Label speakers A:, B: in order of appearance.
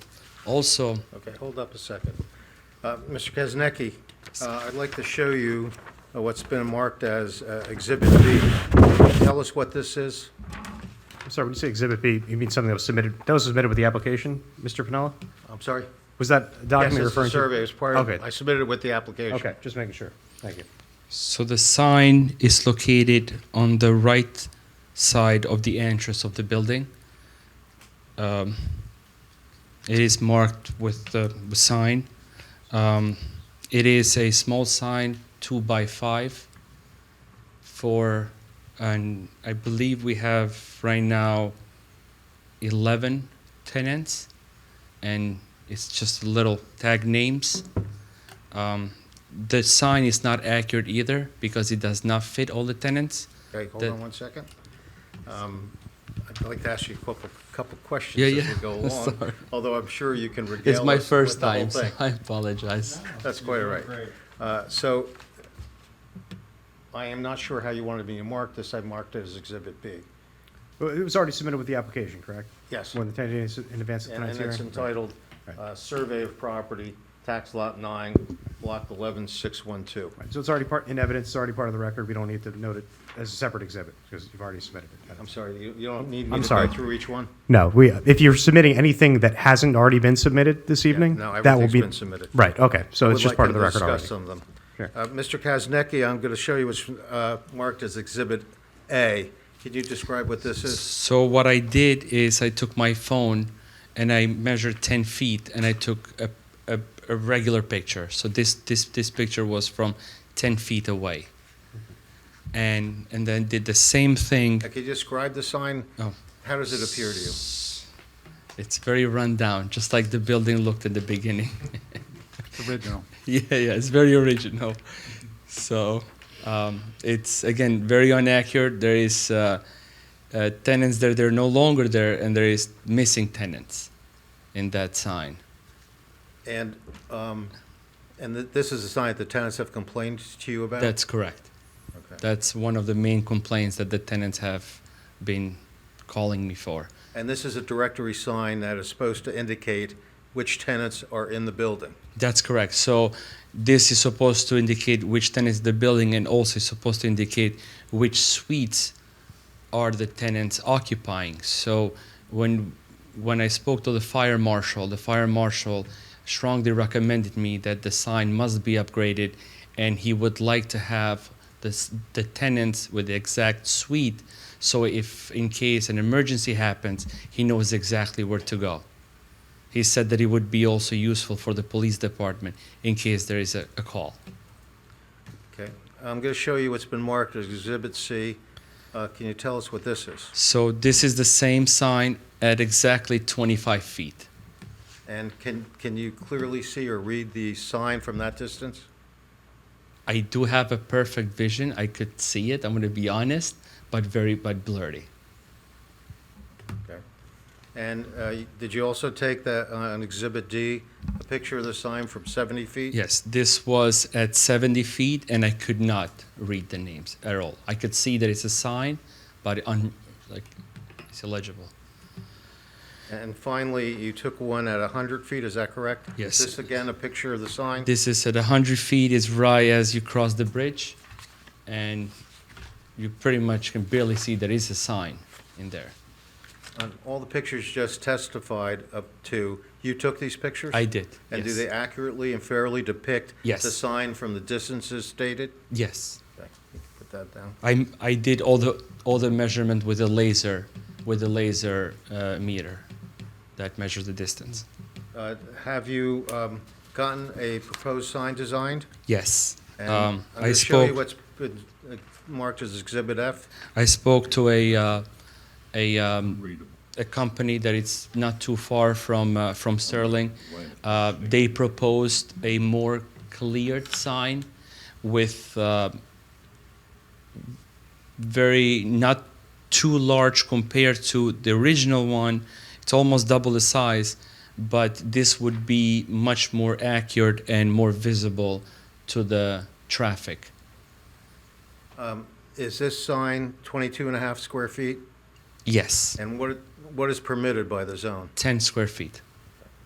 A: Also,
B: Okay, hold up a second. Uh, Mr. Kaznecki, uh, I'd like to show you uh, what's been marked as uh, Exhibit B. Tell us what this is.
C: I'm sorry, when you say Exhibit B, you mean something that was submitted, that was submitted with the application, Mr. Pinella?
B: I'm sorry?
C: Was that document
B: Yes,
C: you're
B: it's the
C: referring to?
B: survey. It's part of-
C: Okay.
B: I submitted it with the application.
C: Okay, just making sure. Thank you.
A: so the sign is located on the right side of the entrance of the building. Um, it is marked with the the sign. Um, it is a small sign, two by five, for, and I believe we have right now 11 tenants, and it's just little tag names. Um, the sign is not accurate either because it does not fit all the tenants.
B: Okay, hold
A: The-
B: on one second. Um, I'd like to ask you a couple, couple questions
A: Yeah,
B: as we
A: yeah.
B: go along,
A: Sorry.
B: although I'm sure you can regale
A: It's my
B: us with
A: first
B: the whole
A: time, so
B: thing.
A: I apologize.
B: That's quite all right. Uh, So I am not sure how you wanted me to mark this. I marked it as Exhibit B.
C: Well, It was already submitted with the application, correct?
B: Yes.
C: More than 10 days in advance of
B: And
C: tonight's
B: and
C: hearing?
B: it's entitled
C: Right.
B: uh, Survey of Property, Tax Lot 9, Block 11612.
C: Right, So it's already part, in evidence, it's already part of the record, we don't need to note it as a separate exhibit, because you've already submitted it.
B: I'm sorry, you you don't need me
C: I'm
B: to go
C: sorry.
B: through each one?
C: No, we, if you're submitting anything that hasn't already been submitted this evening,
B: no,
C: that will
B: everything's
C: be.
B: been submitted.
C: Right, okay, so
B: Would
C: it's just
B: like
C: part of
B: to
C: the record already.
B: discuss some of them.
C: Sure.
B: Uh, Mr. Kaznecki, I'm going to show you what's uh, marked as Exhibit A. Can you describe what this is?
A: So what I did is I took my phone and I measured 10 feet and I took a, a, a regular picture. So this, this, this picture was from 10 feet away. And, and then did the same thing.
B: Uh, Can you describe the sign?
A: Oh.
B: How does it appear to you?
A: It's very run down, just like the building looked in the beginning.
D: Original.
A: yeah, yeah, it's very original. So um, it's again very inaccurate. There is uh, uh, tenants there; they're no longer there, and there is missing tenants in that sign.
B: And, um, and th- this is a sign that the tenants have complained to you about?
A: That's correct.
B: Okay.
A: That's one of the main complaints that the tenants have been calling me for.
B: And this is a directory sign that is supposed to indicate which tenants are in the building.
A: That's correct. So this is supposed to indicate which tenant is the building and also is supposed to indicate which suites are the tenants occupying. So when when I spoke to the fire marshal, the fire marshal strongly recommended me that the sign must be upgraded and he would like to have the, s- the tenants with the exact suite so if in case an emergency happens, he knows exactly where to go. He said that it would be also useful for the police department in case there is a, a call.
B: Okay? I'm going to show you what's been marked as Exhibit C. Uh, Can you tell us what this is?
A: So this is the same sign at exactly 25 feet.
B: And can, can you clearly see or read the sign from that distance?
A: I do have a perfect vision. I could see it. I'm going to be honest, but very but blurry.
B: Okay. And uh, y- did you also take that uh, on Exhibit D, a picture of the sign from 70 feet?
A: Yes, this was at 70 feet, and I could not read the names at all. I could see that it's a sign, but un, like it's illegible.
B: And finally, you took one at 100 feet, is that correct?
A: Yes.
B: Is this again a picture of the sign?
A: This is at 100 feet. Is right as you cross the bridge, and you pretty much can barely see there is a sign in there.
B: On all the pictures just testified up to, you took these pictures?
A: I did.
B: And do
A: yes.
B: they accurately and fairly depict?
A: Yes.
B: The sign from the distances stated?
A: Yes.
B: Okay, Put that down.
A: I I did all the all the measurement with a laser with a laser uh, meter that measures the distance.
B: Uh, Have you um, gotten a proposed sign designed?
A: Yes.
B: And
A: um,
B: I'm
A: I
B: gonna show you
A: spoke.
B: what's been uh, marked as Exhibit F.
A: I spoke to a uh, a um, a company that it's not too far from uh, from Sterling. Uh, they proposed a more cleared sign with uh, very not too large compared to the original one. It's almost double the size, but this would be much more accurate and more visible to the traffic.
B: Is this sign 22 and a half square feet?
A: Yes,
B: And what, what is permitted by the zone?
A: 10 square feet.